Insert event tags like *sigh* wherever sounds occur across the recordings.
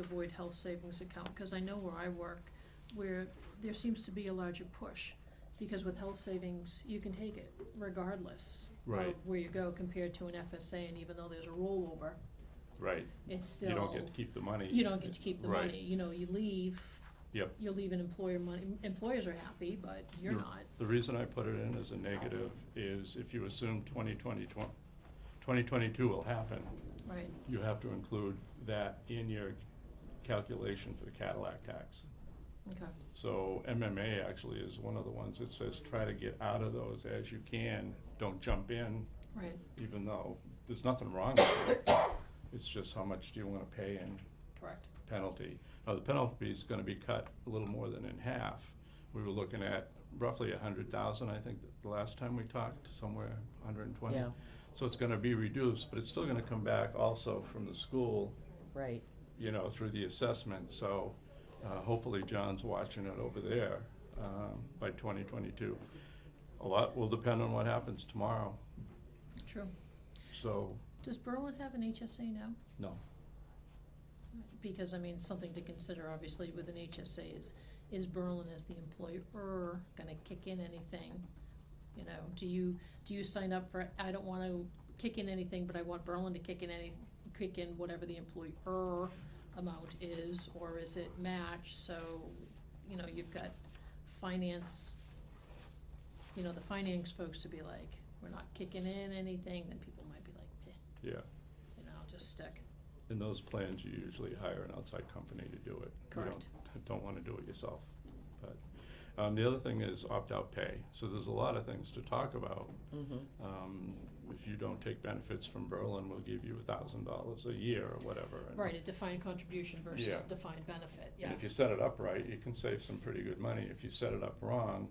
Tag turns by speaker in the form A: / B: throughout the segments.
A: avoid health savings account, because I know where I work, where there seems to be a larger push. Because with health savings, you can take it regardless
B: Right.
A: of where you go compared to an FSA, and even though there's a rollover,
B: Right,
A: it's still.
B: you don't get to keep the money.
A: you don't get to keep the
B: Right.
A: money, you know, you leave,
B: Yep,
A: you're leaving employer money, employers are happy, but you're
B: You're-
A: not.
B: the reason I put it in as a negative is if you assume 2020 twen- 2022 will happen,
A: Right,
B: you have to include that in your calculation for the Cadillac tax.
A: okay,
B: So MMA actually is one of the ones that says try to get out of those as you can, don't jump in,
A: right,
B: even though there's nothing wrong with it. It's just how much do you wanna pay and
A: correct,
B: penalty. Now, the penalty is gonna be cut a little more than in half. We were looking at roughly a hundred thousand, I think, the last time we talked, somewhere hundred and twenty.
C: Yeah.
B: So it's gonna be reduced, but it's still gonna come back also from the school,
C: Right,
B: you know, through the assessment. So, uh, hopefully John's watching it over there, um, by twenty twenty-two. A lot will depend on what happens tomorrow,
A: true.
B: so,
A: Does Berlin have an HSA now?
B: no.
A: Because, I mean, something to consider, obviously, with an HSA is, is Berlin as the employer gonna kick in anything? You know, do you, do you sign up for, I don't wanna kick in anything, but I want Berlin to kick in any, kick in whatever the employer amount is, or is it match, so, you know, you've got finance, you know, the finance folks to be like, we're not kicking in anything, then people might be like, "Eh,
B: Yeah,
A: you know, I'll just stick.
B: in those plans, you usually hire an outside company to do it. You
A: Correct.
B: don't- Don't wanna do it yourself, but, um, the other thing is opt-out pay, so there's a lot of things to talk about.
C: mm-hmm,
B: Um, if you don't take benefits from Berlin, we'll give you a thousand dollars a year or whatever. and-
A: Right, a defined contribution versus
B: Yeah.
A: defined benefit, yeah.
B: And if you set it up right, you can save some pretty good money, if you set it up wrong,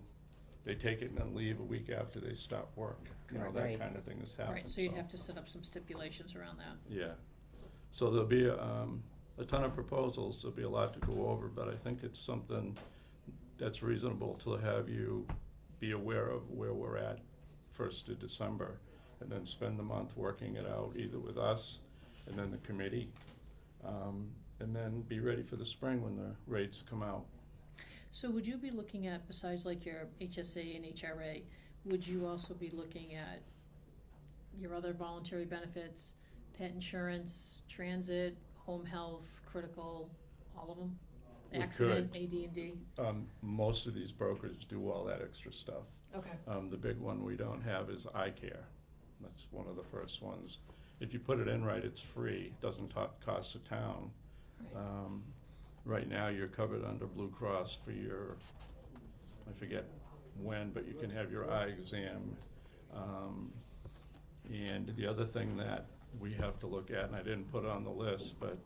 B: they take it and then leave a week after they stop work, you know,
A: Correct.
B: that
C: Right.
B: kinda thing has happened,
A: Right, so you'd have to set up some stipulations around that.
B: Yeah, so there'll be, um, a ton of proposals, there'll be a lot to go over, but I think it's something that's reasonable to have you be aware of where we're at first of December, and then spend the month working it out, either with us and then the committee. Um, and then be ready for the spring when the rates come out.
A: So would you be looking at, besides like your HSA and HRA, would you also be looking at your other voluntary benefits, pet insurance, transit, home health, critical, all of them?
B: We could.
A: Accident, AD and D,
B: Um, most of these brokers do all that extra stuff.
A: okay,
B: Um, the big one we don't have is eye care. That's one of the first ones. If you put it in right, it's free, doesn't to- cost the town.
A: right,
B: Um, right now, you're covered under Blue Cross for your, I forget when, but you can have your eye exam. Um, and the other thing that we have to look at, and I didn't put on the list, but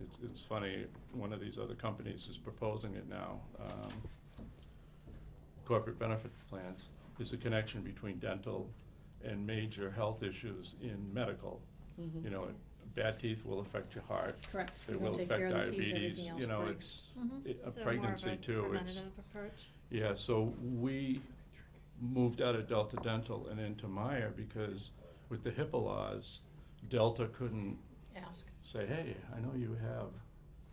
B: it's, it's funny, one of these other companies is proposing it now. um, Corporate benefit plans is the connection between dental and major health issues in medical.
C: mm-hmm.
B: You know, bad teeth will affect your heart,
A: correct.
B: it
A: You
B: will
A: don't take care
B: affect
A: of the teeth,
B: diabetes,
A: everything
B: you know,
A: else breaks.
B: it's,
A: Mhm.
B: it- a
D: So more of
B: pregnancy too, it's,
D: preventative approach?
B: yeah, so we moved out of Delta Dental and into Meyer because with the HIPAA laws, Delta couldn't
A: Ask,
B: say, hey, I know you have,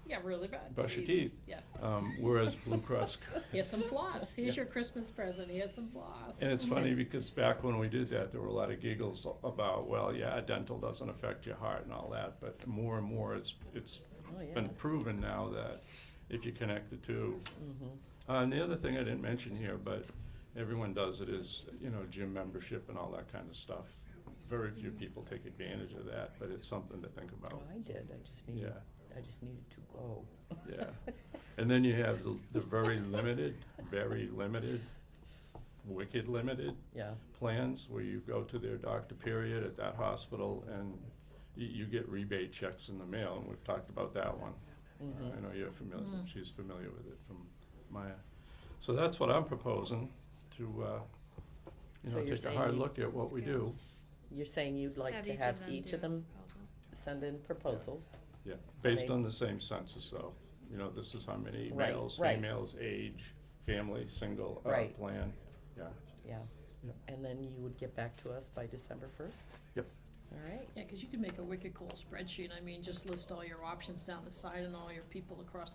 A: yeah, really bad.
B: brush your teeth,
A: Yeah,
B: um, whereas Blue Cross could.
A: here's some floss, here's your Christmas present, here's some floss.
B: And it's funny because back when we did that, there were a lot of giggles about, well, yeah, dental doesn't affect your heart and all that, but more and more, it's, it's
C: Oh, yeah.
B: been proven now that if you connect the two,
C: Mhm.
B: Uh, and the other thing I didn't mention here, but everyone does it, is, you know, gym membership and all that kind of stuff. Very few people take advantage of that, but it's something to think about.
C: Well, Oh, I did, I just
B: Oh. Yeah,
C: needed, I just needed to go.
B: yeah.
C: *laughs*
B: And then you have the, the very limited, very limited, wicked limited
C: Yeah,
B: plans where you go to their doctor period at that hospital and you, you get rebate checks in the mail, and we've talked about that one.
C: mhm.
B: I know you're familiar,
A: Mm.
B: she's familiar with it from Maya. So that's what I'm proposing, to, uh, you
C: So
B: know,
C: you're
B: take a
C: saying
B: hard
C: you-
B: look at what we
D: Yeah.
B: do.
C: You're saying you'd like to have each of them send in proposals?
B: Yeah, based
C: they-
B: on the same census though, you know, this is how many
C: Right,
B: males,
C: right.
B: females, age, family, single, uh,
C: Right.
B: plan, yeah.
C: Yeah.
B: Yep.
C: And then you would get back to us by December first?
B: Yep.
C: all right,
A: Yeah, cause you could make a wicked cool spreadsheet, I mean, just list all your options down the side and all your people across the